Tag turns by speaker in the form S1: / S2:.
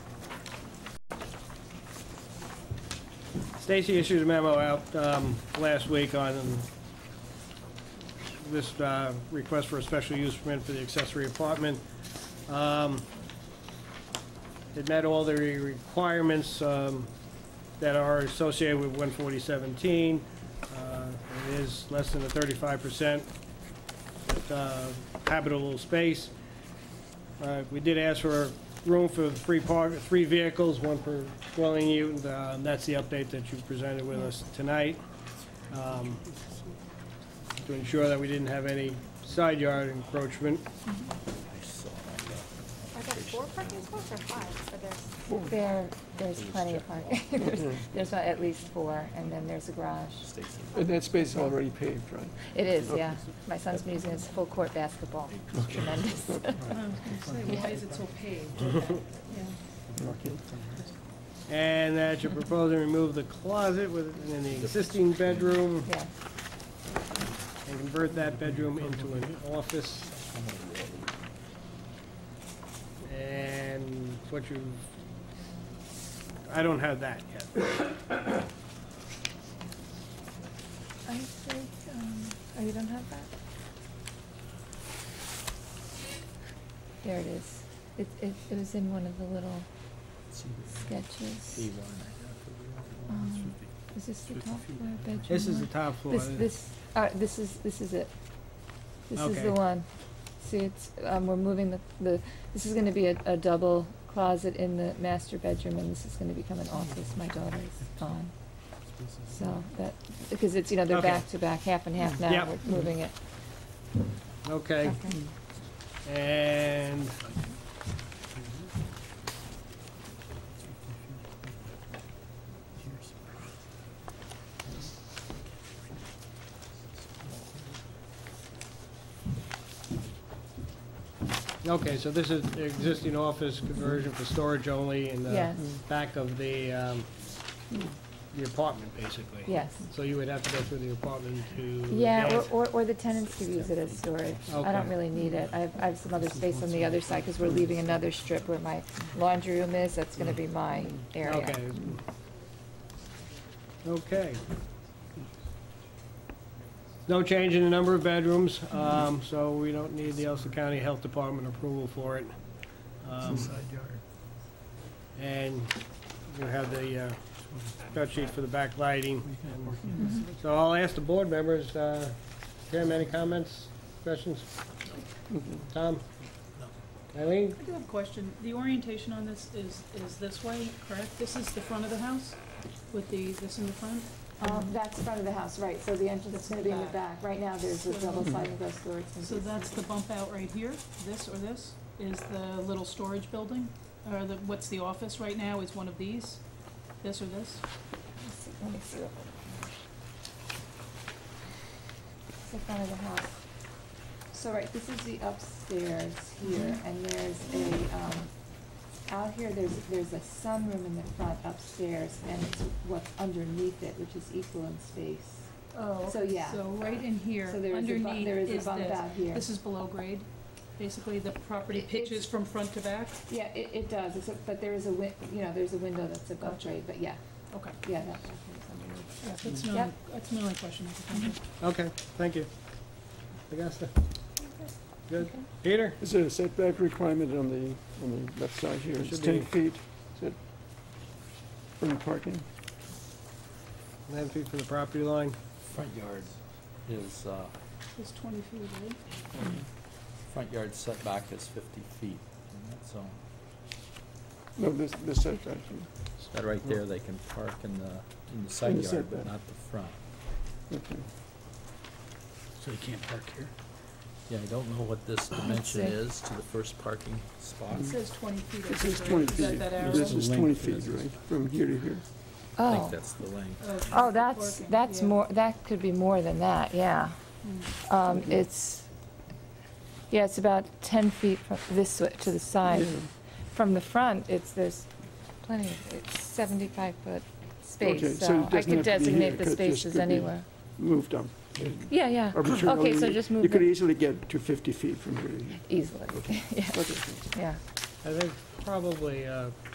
S1: Stacy issued a memo out um, last week on this uh, request for a special use permit for the accessory apartment. Um, It met all the requirements um, that are associated with 14017. Uh, It is less than a 35% uh, habitable space. Uh, We did ask for room for three park, three vehicles, one per dwelling unit, uh, and that's the update that you presented with us tonight. um, To ensure that we didn't have any side yard encroachment.
S2: Are there four parking spots or five for this?
S3: There, there's plenty of parking.
S1: Mm-hmm.
S3: There's- There's at least four, and then there's a garage.
S4: And that space is already paved, right?
S3: It is, yeah. My son's museum is full court basketball. It's Tremendous.
S5: I was gonna say, why is it so paved? Yeah.
S1: And that you're proposing to remove the closet within the existing bedroom
S3: Yeah.
S1: and convert that bedroom into an office. And what you, I don't have that yet.
S5: I think, um, oh, you don't have that?
S3: There it is. It, it, it was in one of the little sketches. Um, Is this the top floor bedroom?
S1: This is the
S3: one?
S1: top floor.
S3: This, this, uh, this is, this is it. This is
S1: Okay.
S3: the one. See, it's, um, we're moving the, the, this is gonna be a, a double closet in the master bedroom, and this is gonna become an office, my daughter's on. So, that, because it's, you know, they're
S1: Okay.
S3: back to back, half and half now,
S1: Yep.
S3: we're moving it.
S1: Okay, and Okay, so this is the existing office conversion for storage only in the
S3: Yes.
S1: back of the, um, the apartment, basically.
S3: Yes.
S1: So you would have to go through the apartment to.
S3: Yeah,
S1: get-
S3: or, or, or the tenants could use it as storage. I don't
S1: Okay.
S3: really need it. I have, I have some other space on the other side, because we're leaving another strip where my laundry room is, that's gonna be my area.
S1: Okay. Okay. No change in the number of bedrooms, um, so we don't need the Elsa County Health Department approval for it. Um, And you have the uh, cut sheet for the backlighting. So I'll ask the board members, uh, Tim, any comments, questions? Tom? Eileen?
S6: I do have a question. The orientation on this is, is this way, correct? This is the front of the house with the, this in the front?
S2: Um, that's front of the house, right, so the entrance is gonna be in the back. Right now, there's a double sliding glass door. It's gonna
S6: So
S2: be-
S6: that's the bump out right here, this or this, is the little storage building? Or the, what's the office right now is one of these, this or this?
S3: Let's see- let me see what- It's the front of the house.
S2: So, right, this is the upstairs here, and there's a, um, out here, there's, there's a sunroom in the front upstairs, and it's what's underneath it, which is equal in space.
S6: Oh.
S2: So, yeah.
S6: So right in here,
S2: So there is a bump,
S6: underneath
S2: there
S6: is
S2: is a
S6: this.
S2: bump out here.
S6: This is below grade. Basically, the property
S2: It-
S6: pitches
S2: it's-
S6: from front to back?
S2: Yeah, it, it does, it's a- but there is a win, you know, there's a window that's above
S6: Gotcha.
S2: grade, but yeah,
S6: Okay.
S2: yeah, that, that's underneath.
S6: Yeah, That's my,
S2: Yep. Mm-hmm.
S6: that's my only question. I could think of.
S1: Okay, thank you. Augusta? Good. Peter?
S4: Is there a setback requirement on the, on the left side here? It's
S1: Should be.
S4: ten feet, is it, from the parking?
S1: Nine feet from the property line.
S7: Front yard is, uh,
S6: It's twenty feet, right?
S7: front yard setback is fifty feet in that zone.
S4: No, this, this setback,
S7: That right there, they can park in the, in the side
S4: the
S7: yard, but
S4: setback.
S7: not the front.
S4: okay.
S8: So you can't park here?
S7: Yeah, I don't know what this
S3: see.
S7: dimension is to the first parking spot.
S6: It says twenty feet. I
S4: This
S6: think,
S4: is
S6: right?
S4: twenty
S6: Is
S4: feet,
S6: that that arrow?
S4: this is
S8: Length
S4: twenty
S8: of
S4: feet,
S8: this.
S4: right, from here to here.
S7: I think
S3: Oh,
S7: that's the length.
S6: Of
S3: oh,
S6: the
S3: that's,
S6: parking,
S3: that's
S6: yeah.
S3: more, that could be more than that, yeah.
S4: Mm.
S3: Um, it's, yeah, it's about ten feet from this way to the side.
S4: Yeah.
S3: From the front, it's, there's plenty, of- it's seventy-five foot
S4: Okay,
S3: space,
S4: so
S3: so
S4: it
S3: I
S4: doesn't
S3: could
S4: have to be here, it
S3: designate the
S4: could- just
S3: spaces
S4: could be-
S3: anywhere.
S4: Moved up
S3: Yeah, yeah,
S4: arbitrarily.
S3: so
S4: You-
S3: just move
S4: You could e
S3: it.
S4: easily get to fifty feet from here to here.
S3: easily, yeah,
S4: Okay.
S3: yeah.
S1: I think probably, uh,